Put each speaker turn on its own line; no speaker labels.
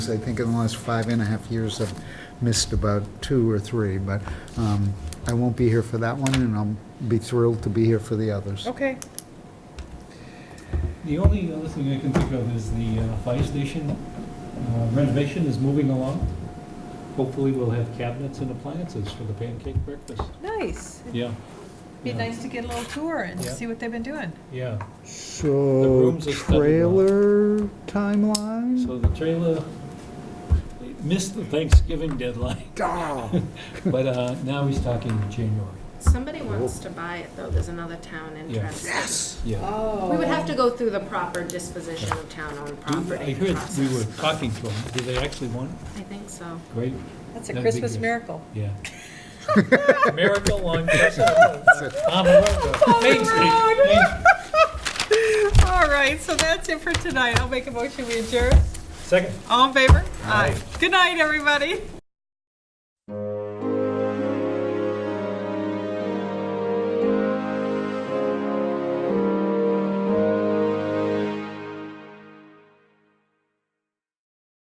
I think in the last five and a half years, I've missed about two or three, but um, I won't be here for that one, and I'll be thrilled to be here for the others.
Oh.
Okay.
The only other thing I can think of is the uh, fire station uh, renovation is moving along. Hopefully, we'll have cabinets and appliances for the pancake breakfast.
Nice. It'd
Yeah.
be
yeah,
nice to get a little tour and
Yeah.
see what they've been doing.
Yeah,
So,
rooms are studied now.
trailer timeline?
so the trailer they missed the Thanksgiving deadline,
Oh,
but uh, now he's talking January.
Somebody
Oh.
wants to buy it, though, there's another town interested.
Yeah.
Oh.
We would have to go through the proper disposition of town-owned
Do- I
property
heard we were
process.
talking to him. Do they actually want it?
I think so.
Great,
That's a
That'd be
Christmas
good.
miracle.
yeah. Miracle on Main Street. Main Street.
All right, so that's it for tonight. I'll make a motion, we adjourn.
Second.
All in favor? Aye. Good night, everybody.